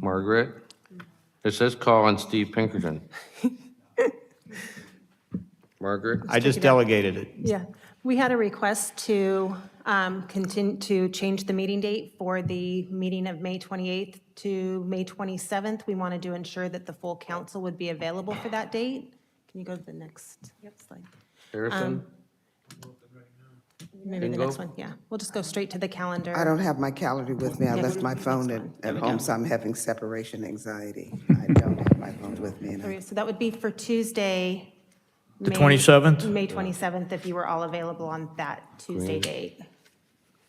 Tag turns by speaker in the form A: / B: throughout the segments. A: Margaret? It says call on Steve Pinkerton. Margaret?
B: I just delegated it.
C: Yeah, we had a request to continue, to change the meeting date for the meeting of May 28th to May 27th. We wanted to ensure that the full council would be available for that date. Can you go to the next slide?
D: um,
A: Harrison?
C: Maybe the
A: Bingo.
C: next one, yeah. We'll just go straight to the calendar.
D: I don't have my calendar with me. I left my phone at, at home, so I'm having separation anxiety. I don't have my phone with me. and I-
C: So that would be for Tuesday.
E: The
C: May-
E: 27th?
C: May 27th, if you were all available on that Tuesday date.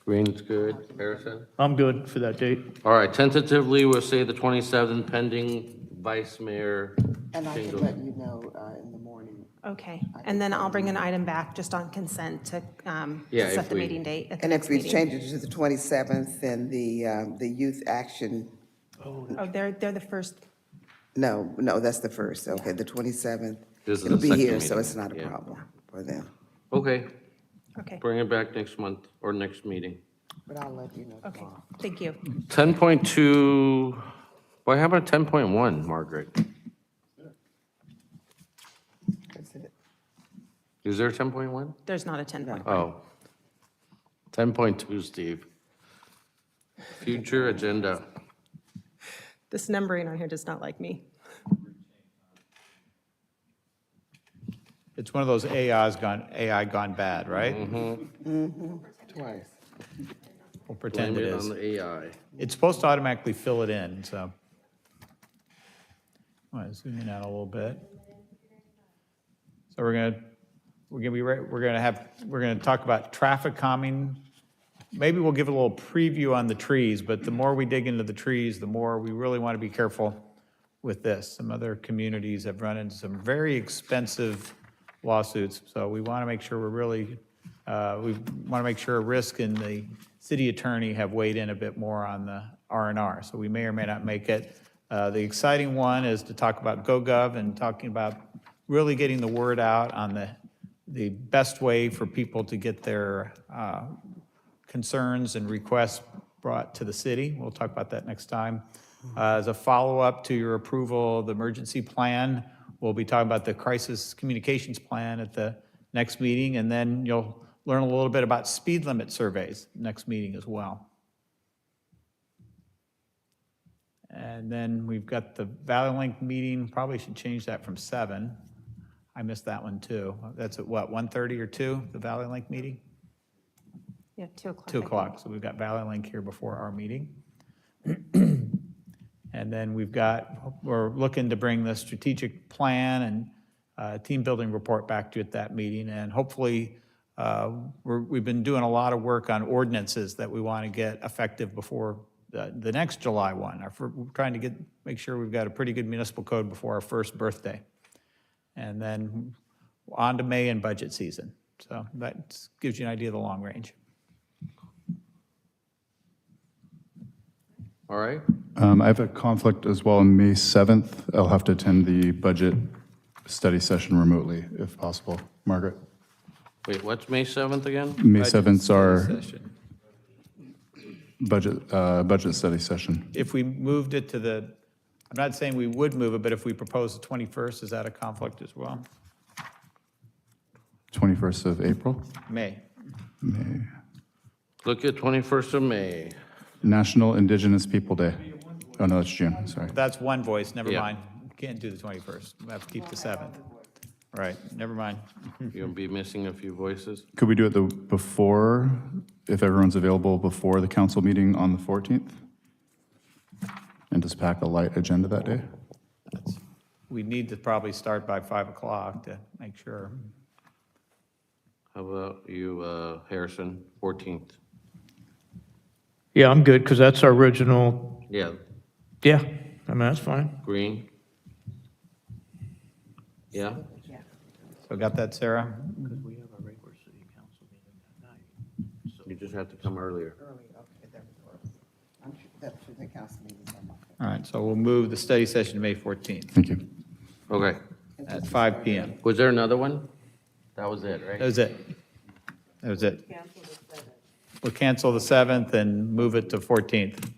A: Green's good. Harrison?
E: I'm good for that date.
A: All right, tentatively, we'll say the 27th pending Vice Mayor
D: And I can
A: Shingle.
D: let you know uh, in the morning.
C: Okay, and then I'll bring an item back just on consent to um,
A: Yeah,
C: set
A: if
C: the
A: we-
C: meeting date. at the
D: And if
C: next
D: we
C: meeting.
D: change it to the 27th, then the, um, the youth action,
C: Oh, they're, they're the first,
D: no, no, that's the first, okay, the 27th.
A: This is
D: It'll
A: the
D: be
A: second
D: here, so
A: meeting,
D: it's not a
A: yeah.
D: problem for them.
A: Okay,
C: okay,
A: bring it back next month or next meeting.
D: But I'll let you know
C: okay, thank you.
A: 10.2, Why? how about 10.1, Margaret?
D: That's it.
A: Is there a 10.1?
C: There's not a 10 point.
A: Oh. 10.2, Steve. Future agenda.
C: This numbering on here does not like me.
B: It's one of those AI's gone, AI gone bad,
A: Mm-hmm.
B: right?
D: Twice.
B: We'll pretend
A: Blame
B: it
A: it on
B: is.
A: the AI.
B: It's supposed to automatically fill it in, so. All right, zoom in out a little bit. So we're gonna, we're gonna be, right- we're gonna have, we're gonna talk about traffic calming. Maybe we'll give a little preview on the trees, but the more we dig into the trees, the more we really want to be careful with this. Some other communities have run into some very expensive lawsuits, so we want to make sure we're really, uh, we want to make sure Risk and the city attorney have weighed in a bit more on the R and R, so we may or may not make it. Uh, The exciting one is to talk about GoGov and talking about really getting the word out on the, the best way for people to get their uh, concerns and requests brought to the city. We'll talk about that next time. Uh, As a follow-up to your approval of the emergency plan, we'll be talking about the crisis communications plan at the next meeting, and then you'll learn a little bit about speed limit surveys next meeting as well. And then we've got the Valley Link meeting, probably should change that from seven. I missed that one too. That's at what, 1:30 or two? the Valley Link meeting?
C: Yeah, 2 o'clock. I
B: 2
C: think.
B: o'clock, so we've got Valley Link here before our meeting. And then we've got, we're looking to bring the strategic plan and uh, team building report back to you at that meeting. And hopefully, uh, we're- we've been doing a lot of work on ordinances that we want to get effective before the the next July 1. Our fir- We're trying to get, make sure we've got a pretty good municipal code before our first birthday. And then on to May and budget season. So that gives you an idea of the long range.
A: All right?
F: Um, I have a conflict as well on May 7th. I'll have to attend the budget study session remotely, if possible. Margaret?
A: Wait, what's May 7th again?
F: May 7th's our
B: session.
F: budget, uh, budget study session.
B: If we moved it to the, I'm not saying we would move it, but if we propose the 21st, is that a conflict as well?
F: 21st of April,
B: May.
A: Look at 21st of May.
F: National Indigenous People Day. Oh, no, that's June, sorry.
B: That's one voice, never
A: Yeah.
B: mind. Can't do the 21st, we have to keep the 7th. Right, never mind.
A: You'll be missing a few voices.
F: Could we do it the, before, if everyone's available, before the council meeting on the 14th? And just pack a light agenda that day?
B: We need to probably start by 5 o'clock to make sure.
A: How about you, uh, Harrison, 14th?
E: Yeah, I'm good, because that's our original,
A: Yeah,
E: yeah, I mean, that's fine.
A: Green? Yeah?
B: So got that, Sarah?
A: You just have to come earlier.
D: Early, okay, that would work. I'm sure, that's the council meeting. on my phone.
B: All right, so we'll move the study session to May 14th
F: Thank you.
A: Okay.
B: at 5 PM.
A: Was there another one? That was it, right?
B: That was it. That was it. We'll cancel the 7th and move it to 14th.